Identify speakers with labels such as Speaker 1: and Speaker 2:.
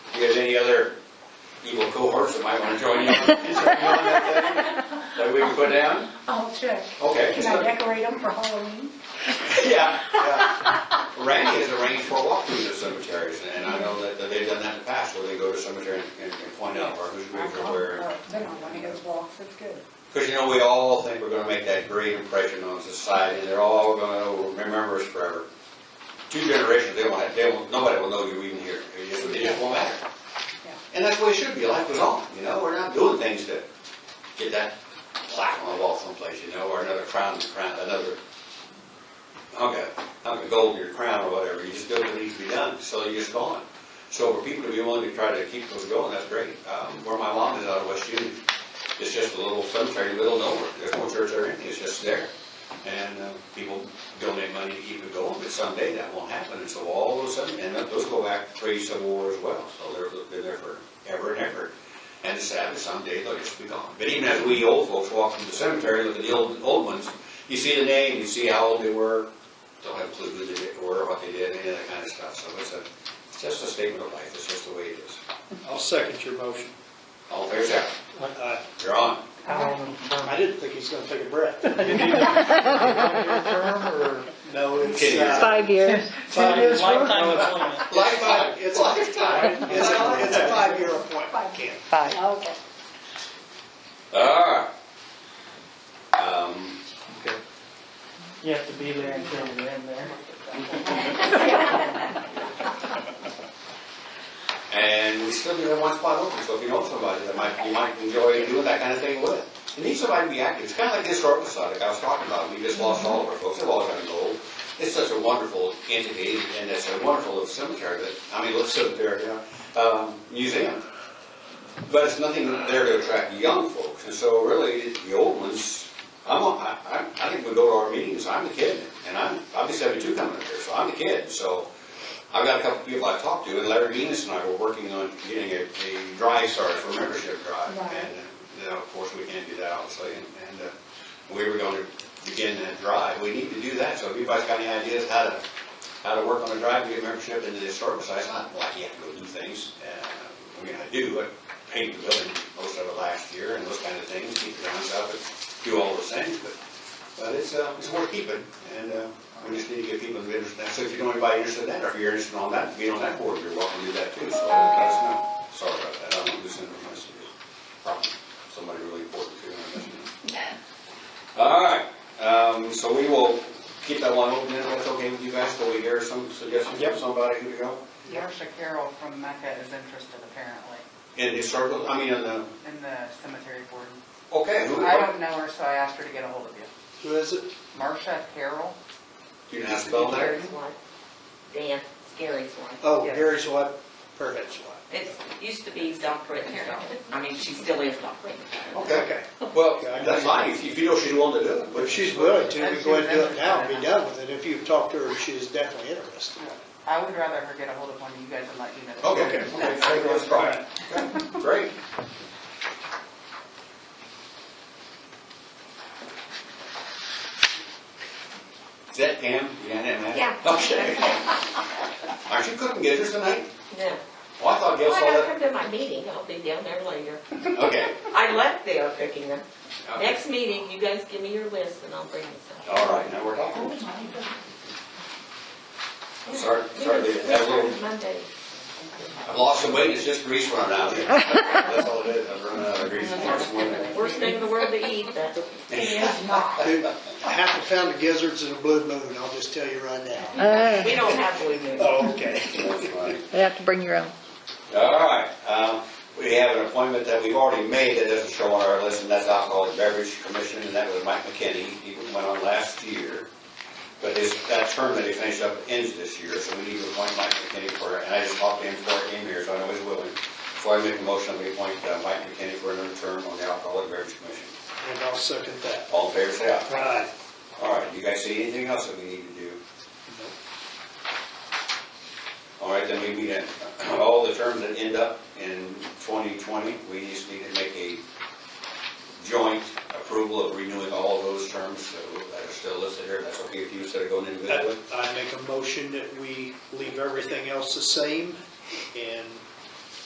Speaker 1: any other evil cohorts that might want to join you? on- Is there any on that thing That we can put down?
Speaker 2: I'll check.
Speaker 1: Okay.
Speaker 2: Can I decorate them for Halloween?
Speaker 1: Yeah, yeah. Randy has arranged for a walk through the cemeteries, and I know that that they've done that in the past, where they go to cemetery and- and and point out where who's
Speaker 2: I'll
Speaker 1: buried
Speaker 2: come.
Speaker 1: where.
Speaker 2: Oh, Then I'll want to go walks, that's good.
Speaker 1: Because, you know, we all think we're gonna make that great impression on society, and they're all gonna remember us forever. Two generations, they won't, they won't, nobody will know you even here, it just, it just won't matter.
Speaker 2: Yeah.
Speaker 1: And that's the way it should be, life goes on, you know, we're not doing things to get that plaque on the wall someplace, you know, or another crown, crown, another, okay, hunk of gold in your crown or whatever, you just do what needs to be done, so you just go on. So for people to be willing to try to keep those going, that's great. Um, where my mom is out of West Union, it's just a little cemetery, in the middle of nowhere, there's no church or anything, it's just there. And, uh, people donate money to keep it going, but someday that won't happen, and so all those, cem- and those go back pre-Civil War as well, so they're, they're there forever and ever. And it's sad that someday they'll just be gone. But even as we old folks walk through the cemetery, look at the old, old ones, you see the name, you see how old they were, don't have a clue who they were, what they did, any of that kind of stuff, so it's a, it's just a statement of life, it's just the way it is.
Speaker 3: I'll second your motion.
Speaker 1: All fair and sound,
Speaker 3: I
Speaker 1: you're on.
Speaker 3: Uh, I didn't think he's gonna take a breath. No, it's
Speaker 1: Ten years.
Speaker 3: uh,
Speaker 4: Five years.
Speaker 3: five years.
Speaker 5: Lifetime
Speaker 3: No, it's-
Speaker 5: appointment.
Speaker 1: Lifetime, it's lifetime.
Speaker 3: It's a it's a five-year appointment,
Speaker 2: Five.
Speaker 3: Ken.
Speaker 4: Five.
Speaker 2: Okay.
Speaker 1: All right. Um,
Speaker 5: You have to be there until you're in there.
Speaker 1: And we still do have one spot open, so if you know somebody that might, you might enjoy doing that kind of thing with. You need somebody to be active, it's kind of like this historical society, like I was talking about, we just lost all of our folks, they've all gone gold. It's such a wonderful entity, and it's a wonderful cemetery, that, I mean, little cemetery, yeah, um, museum. But it's nothing there to attract young folks, and so really, the old ones, I'm, on- I, I I think we go to our meetings, I'm the kid, and I'm, I'll be seventy-two coming up here, so I'm the kid, so. I've got a couple people I talked to, and Larry Venus and I were working on getting a, a drive started for membership drive.
Speaker 2: Right.
Speaker 1: And, uh, now, of course, we can't do that obviously, and, and, uh, we were gonna begin that drive, we need to do that, so if anybody's got any ideas how to, how to work on a drive to get membership into the historical society, it's not like you have to go do things, uh, I mean, I do, I painted the building most of it last year and those kind of things, keep the grounds up and do all those things, but but it's, uh, it's worth keeping, and, uh, we just need to get people interested in that, so if you know anybody interested in that, or if you're interested on that, being on that board, you're welcome to do that too, so let us know. Sorry about that, I don't listen to my speakers, probably somebody really important too, I guess. All right, um, so we will keep that one open, if that's okay with you guys, till we hear some suggestions from somebody who to go.
Speaker 6: Marcia Carroll from Mecca is interested apparently
Speaker 1: In historical, I mean, in the,
Speaker 6: in the cemetery board.
Speaker 1: okay, who,
Speaker 6: I don't know her, so I asked her to get a hold of you.
Speaker 3: Who is it?
Speaker 6: Marcia Carroll?
Speaker 1: you can ask about that?
Speaker 7: Gary's one. Dan, Gary's one.
Speaker 3: Oh,
Speaker 6: Yes.
Speaker 3: Gary's wife, her head's wife.
Speaker 7: It's, used to be Dr. Terry. I mean, she still is Dr.
Speaker 1: Okay, well, that's fine, if you feel she's willing to do it,
Speaker 3: But
Speaker 1: but
Speaker 3: if she's
Speaker 1: she's
Speaker 3: willing to,
Speaker 6: And
Speaker 3: we go ahead and do it
Speaker 6: she's
Speaker 3: now and
Speaker 6: interested in
Speaker 3: be
Speaker 6: that.
Speaker 3: done with it. If you've talked to her, she's definitely interested.
Speaker 6: I would rather her get a hold of one of you guys and let you know. that-
Speaker 1: Okay, okay, okay, so that's fine. Okay, Great. Is that Pam? Yeah, that man?
Speaker 7: Yeah.
Speaker 1: Okay. Aren't you cooking gizzards tonight?
Speaker 7: No.
Speaker 1: Oh, I thought Gail
Speaker 7: Well, I
Speaker 1: saw
Speaker 7: gotta
Speaker 1: that.
Speaker 7: come to my meeting, I'll be down there later.
Speaker 1: Okay.
Speaker 7: I left there cooking them.
Speaker 1: okay.
Speaker 7: Next meeting, you guys give me your list and I'll bring this up.
Speaker 1: All right, now we're talking. I'm sorry, sorry,
Speaker 7: Yes,
Speaker 1: that little,
Speaker 7: Monday.
Speaker 1: I've lost some weight, it's just grease running out of me. That's all it is, I've run out of grease. I'm just wondering.
Speaker 7: Worst thing in the world to eat, but
Speaker 3: Dude, Half a pound of gizzards and a blue moon, I'll just tell you right now.
Speaker 4: Uh,
Speaker 7: we don't have blue moon.
Speaker 3: Oh, okay.
Speaker 1: That's funny.
Speaker 4: You have to bring your own.
Speaker 1: All right, um, we have an appointment that we've already made that doesn't show on our list, and that's Alcohol and Beverage Commission, and that was Mike McKinney. He went on last year, but his, that term that he finished up ends this year, so we need to appoint Mike McKinney for, and I just talked to him before I came here, so I know he's willing. So I make a motion, we appoint uh, Mike McKinney for another term on the Alcohol and Beverage Commission.
Speaker 3: And I'll second that.
Speaker 1: All in favor, say aye.
Speaker 3: Right.
Speaker 1: All right, you guys see anything else that we need to do? All right, then we meet at, all the terms that end up in 2020, we just need to make a joint approval of renewing all those terms that are still listed here. That's okay if you instead of going individually?
Speaker 3: I I make a motion that we leave everything else the same and